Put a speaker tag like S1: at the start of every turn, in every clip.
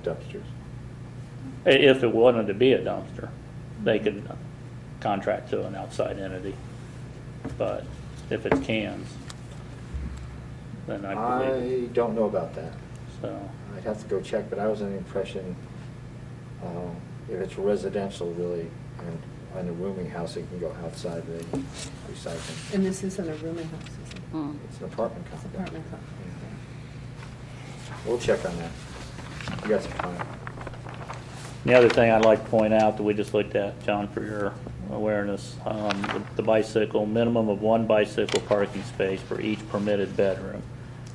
S1: dumpsters.
S2: I- If it wanted to be a dumpster, they could contract to an outside entity. But if it's cans, then I believe,
S1: I don't know about that.
S2: so,
S1: I'd have to go check, but I was under the impression, um, if it's residential really, and on a rooming house, it can go outside the recycling.
S3: And this isn't a rooming house, is it?
S1: It's an apartment
S3: It's
S1: complex.
S3: apartment complex.
S1: We'll check on that. You got some time.
S2: the other thing I'd like to point out that we just looked at, John, for your awareness, um, the- the bicycle, minimum of one bicycle parking space for each permitted bedroom.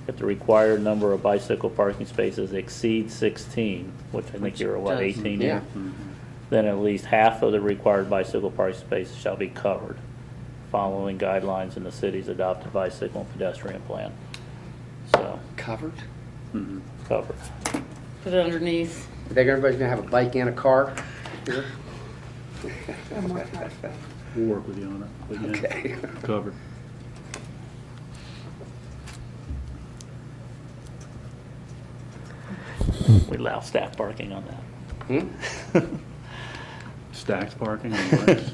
S2: If the required number of bicycle parking spaces exceeds 16, which I think you're, what,
S4: Does-
S2: 18
S4: yeah.
S2: here? then at least half of the required bicycle parking space shall be covered, following guidelines in the city's adopted bicycle and pedestrian plan. So,
S4: Covered?
S2: covered.
S5: Put it underneath.
S4: I think everybody's gonna have a bike and a car here.
S3: I'm more proud of that.
S6: We'll work with you on it. but yeah,
S4: Okay.
S6: Covered.
S2: We allow staff parking on
S4: Hmm?
S2: that.
S6: Stacked parking and bikes.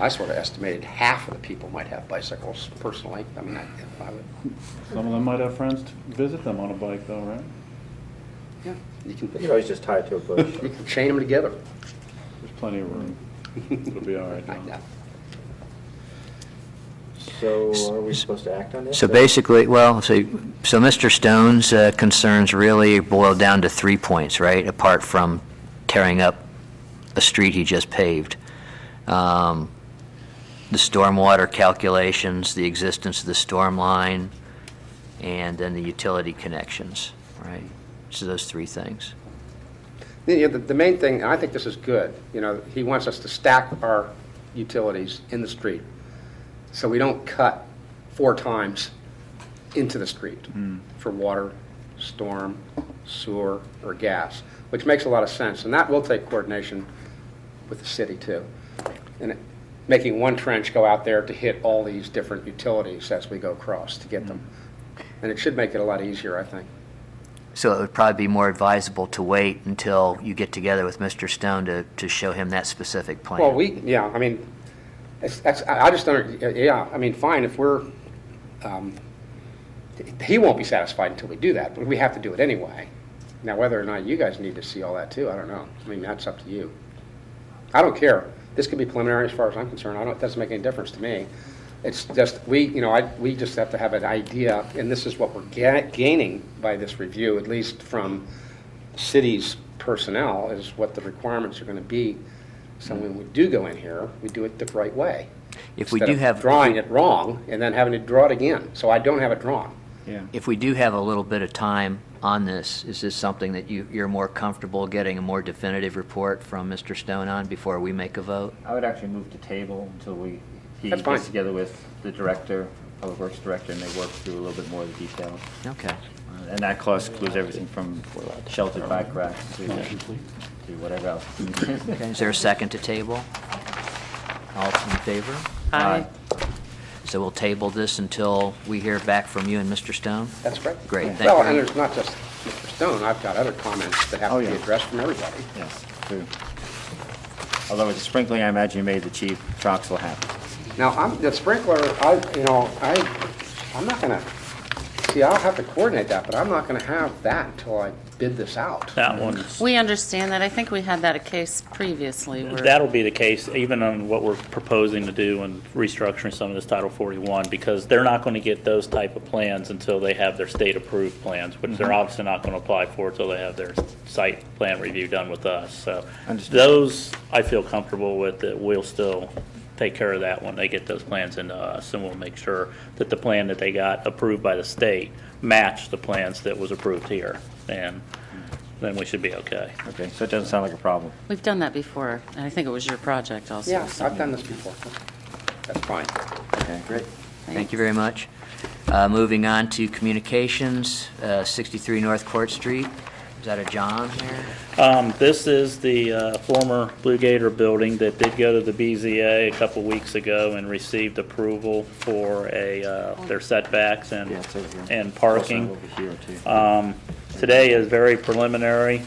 S4: I sort of estimated half of the people might have bicycles personally. I mean, I, I would,
S6: Some of them might have friends to visit them on a bike though, right?
S4: yeah, you can,
S1: You can always just tie it to a bush.
S4: you can chain them together.
S6: There's plenty of room. It'll be all right,
S4: I
S6: John.
S4: know.
S1: So are we supposed to act on this?
S7: So basically, well, so, so Mr. Stone's uh, concerns really boil down to three points, right? Apart from tearing up a street he just paved. Um, The stormwater calculations, the existence of the storm line, and then the utility connections, right? So those three things.
S4: You know, The, the main thing, and I think this is good, you know, he wants us to stack our utilities in the street, so we don't cut four times into the street for water, storm, sewer, or gas, which makes a lot of sense, and that will take coordination with the city too. And it- making one trench go out there to hit all these different utilities as we go across to get them. And it should make it a lot easier, I think.
S7: So it would probably be more advisable to wait until you get together with Mr. Stone to, to show him that specific plan.
S4: Well, we, yeah, I mean, it's, that's, I I just don't, yeah, I mean, fine, if we're, um, he won't be satisfied until we do that, but we have to do it anyway. Now, whether or not you guys need to see all that too, I don't know. I mean, that's up to you. I don't care. This could be preliminary as far as I'm concerned. I don't, it doesn't make any difference to me. It's just, we, you know, I, we just have to have an idea, and this is what we're ga- gaining by this review, at least from city's personnel, is what the requirements are gonna be. So when we do go in here, we do it the right way.
S7: If we
S4: Instead
S7: do
S4: of
S7: have-
S4: Drawing it wrong and then having to draw it again. So I don't have it drawn.
S6: Yeah.
S7: If we do have a little bit of time on this, is this something that you, you're more comfortable getting a more definitive report from Mr. Stone on before we make a vote?
S8: I would actually move to table until we, he
S4: That's fine.
S8: gets together with the director, Public Works Director, and they work through a little bit more of the details.
S7: Okay.
S8: Uh, And that cost includes everything from sheltered bike racks to, to whatever else.
S7: Okay, is there a second to table? All in favor?
S8: Aye.
S7: So we'll table this until we hear back from you and Mr. Stone?
S4: That's correct.
S7: Great, thank
S4: Well,
S7: you.
S4: and there's not just Mr. Stone, I've got other comments that have
S8: Oh,
S4: to be
S8: yeah.
S4: addressed from everybody.
S8: Yes, true. Although with the sprinkling, I imagine you made the chief Troxel happy.
S4: Now, I'm, the sprinkler, I, you know, I, I'm not gonna, see, I'll have to coordinate that, but I'm not gonna have that until I bid this out.
S2: That one's,
S5: We understand that. I think we had that a case previously where.
S2: that'll be the case even on what we're proposing to do and restructuring some of this Title 41, because they're not going to get those type of plans until they have their state-approved plans, which they're obviously not going to apply for until they have their site plan review done with us, so.
S8: Understood.
S2: Those, I feel comfortable with, that we'll still take care of that when they get those plans into us, and we'll make sure that the plan that they got approved by the state matched the plans that was approved here, and then we should be okay.
S8: Okay, so it doesn't sound like a problem.
S5: We've done that before, and I think it was your project also.
S4: Yeah,
S5: so-
S4: I've done this before. That's fine.
S8: Okay, great.
S7: Thank you very much. Uh, Moving on to communications, uh, 63 North Court Street. Is that a John there?
S2: Um, This is the uh, former Blue Gator building that did go to the BZA a couple weeks ago and received approval for a, uh, their setbacks and,
S8: Yeah, it's over here.
S2: and
S8: Also
S2: parking.
S8: Uh, Over here, too.
S2: Um, Today is very preliminary.